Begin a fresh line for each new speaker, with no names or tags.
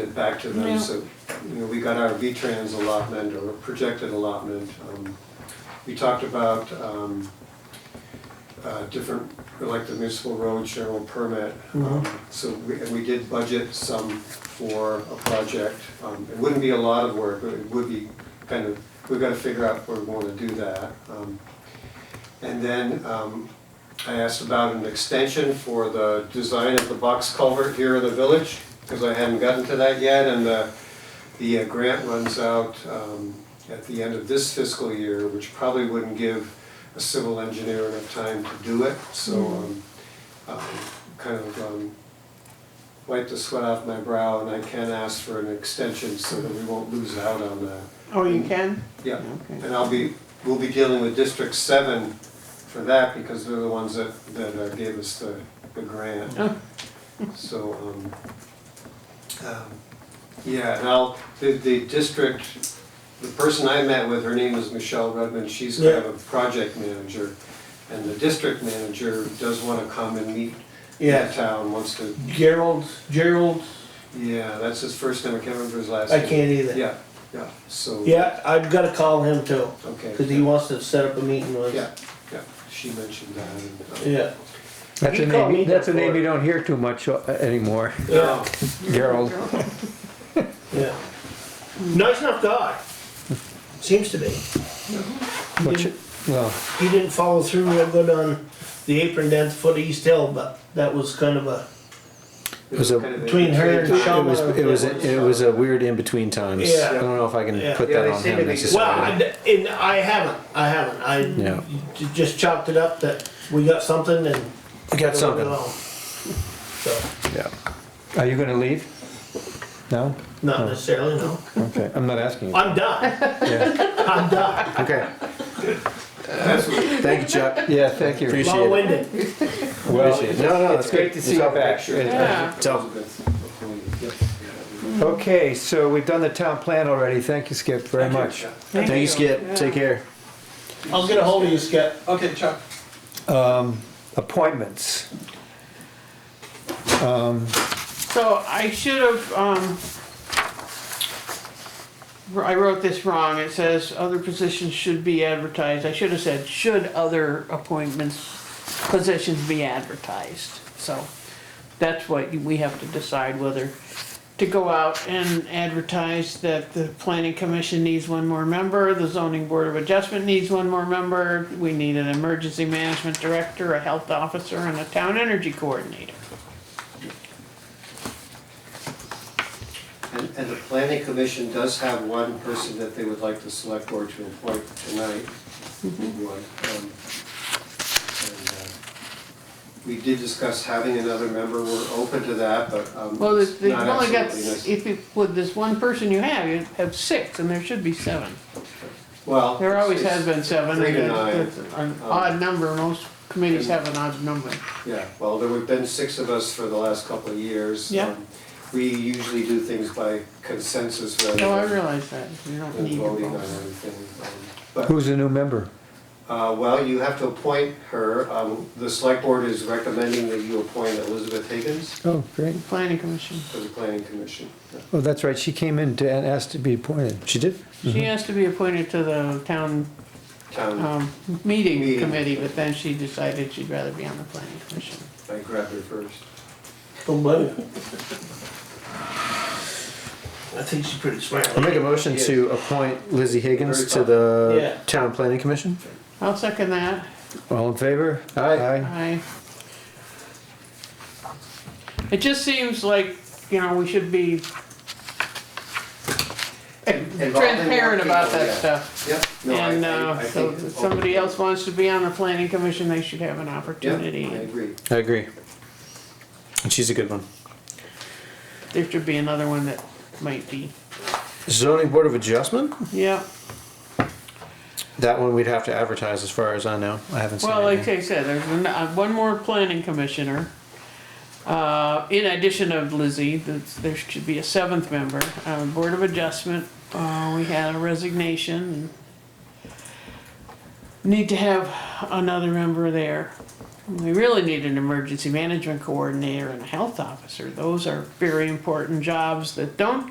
it back to
No.
them, so, you know, we got our V-Trans allotment or projected allotment. Um, We talked about, um, uh, different, like the municipal road general permit. Um, So we, and we did budget some for a project. Um, It wouldn't be a lot of work, but it would be kind of, we've gotta figure out where we wanna do that. Um, And then um, I asked about an extension for the design of the box culvert here in the village, because I hadn't gotten to that yet, and the, the uh, grant runs out um, at the end of this fiscal year, which probably wouldn't give a civil engineer enough time to do it, so um, um, kind of um, wiped the sweat off my brow, and I can ask for an extension so that we won't lose out on that.
Oh, you can?
Yeah,
Okay.
and I'll be, we'll be dealing with District Seven for that, because they're the ones that, that uh, gave us the, the grant.
Oh.
So, um, um, yeah, and I'll, the, the district, the person I met with, her name was Michelle Redmond, she's kind of a project manager. And the district manager does wanna come and meet the
Yeah,
town, wants to,
Gerald, Gerald,
yeah, that's his first name, I can't remember his last
I
name.
can't either.
Yeah, yeah, so,
Yeah, I've gotta call him too,
okay.
cause he wants to set up a meeting with.
Yeah, yeah, she mentioned that. and, uh,
Yeah,
That's
You
a
call
name,
me
you- that's a
before.
name you don't hear too much uh, anymore,
No,
Gerald.
yeah. Nice enough guy, seems to be.
Which- Well,
He didn't follow through real good on the apron dance for the East Hill, but that was kind of a,
it
was a-
kind of
Between her and
between
Sean
it
time.
was, it was, it was a weird in-between times.
Yeah.
I don't know if I can
Yeah.
put
Yeah,
that
they
on
seem to
him
be-
well, I,
necessarily.
d- and I haven't, I haven't,
Yeah.
I j- just chopped it up that we got something and.
We got something,
So,
yeah. Are you gonna leave? No?
not necessarily, no,
Okay, I'm not asking you.
I'm done,
Yeah.
I'm done,
Okay,
That's what-
thank you, Chuck. Yeah, thank you.
long-winded.
Well, no, no, it's
great
good
to see you back.
Yeah.
So,
Yep.
okay, so we've done the town plan already. Thank you, Skip, very much.
Thank you, Skip. Take
care.
I'll get a hold of you, Skip.
Okay, Chuck.
Um, Appointments.
So I should have, um, wr- I wrote this wrong. It says other positions should be advertised. I should have said, should other appointments, positions be advertised? So that's what you- we have to decide whether to go out and advertise that the planning commission needs one more member, the zoning board of adjustment needs one more member, we need an emergency management director, a health officer, and a town energy coordinator.
And, and the planning commission does have one person that they would like the select board to appoint tonight. One, um, and, uh, We did discuss having another member, we're open to that, but, um,
Well, there's-
it's
they've
not
only got,
absolutely necessary.
if you, with this one person you have, you have six, and there should be seven.
Well.
There always
it's-
has been seven.
three to
and
nine. Um,
that's An odd number, most committees have an odd number.
Yeah, well, there have been six of us for the last couple of years.
Yeah.
Um, We usually do things by consensus rather
No, I
than
realize that, you don't
than
need your
voting on
votes.
everything. Um, But,
Who's the new member?
uh, well, you have to appoint her. Um, The select board is recommending that you appoint Elizabeth Higgins
Oh, great.
Planning commission,
to the planning commission.
Oh, that's right, she came in to, and asked to be appointed. She did?
she has to be appointed to the town,
Town,
um, meeting
Meeting.
committee, but then she decided she'd rather be on the planning commission.
I grabbed her first.
Don't blame you. I think she's pretty smart.
I'll make a motion to appoint Lizzie Higgins to
Yeah.
the Town Planning Commission.
I'll second that,
All in favor?
I.
Aye.
It just seems like, you know, we should be
Involving more
transparent about
people,
that
yeah.
stuff.
Yep. No, I-
And
I-
uh,
I
so
think-
if somebody else wants to be on the planning commission, they should have an
Yeah, I
opportunity.
agree.
I agree. And she's a good one.
There should be another one that might be,
Zoning Board of Adjustment?
yeah.
That one we'd have to advertise as far as I know. I haven't seen
Well, like
anything.
I said, there's an- uh, one more planning commissioner. Uh, In addition of Lizzie, that's- there should be a seventh member. Uh, Board of Adjustment, uh, we had a resignation. Need to have another member there. We really need an emergency management coordinator and a health officer. Those are very important jobs that don't